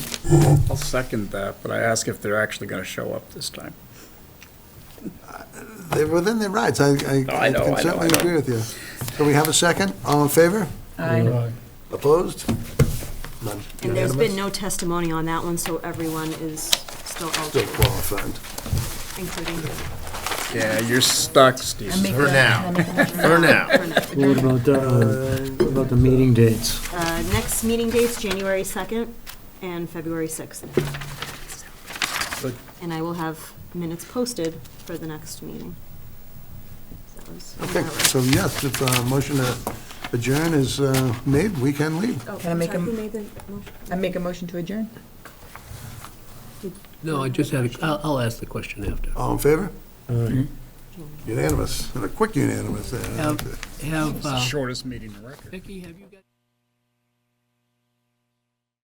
I'll second that, but I ask if they're actually gonna show up this time. They're within their rights. I, I No, I know, I I know, can I certainly know. agree with you. So we have a second? All in favor? Aye. Opposed? None. And there's been Unanimous? no testimony on that one, so everyone is still Still eligible, qualified. including Yeah, you're stuck, Steve. I make For that- now. I make that- For now. Burnett. What about, uh, about the meeting dates? Uh, Next meeting dates, January 2nd and February 6th. Good. And I will have minutes posted for the next meeting. That was on Okay, that right. so yes, if a motion to adjourn is uh, made, we can leave. Oh, Can I make sorry, a- who made the motion? I make a motion to adjourn. No, I just had, a- I'll, I'll ask the question after. All in favor? Aye. Unanimous, and a quick unanimous there. Have, have, uh, Shortest meeting on record. Vicky, have you got?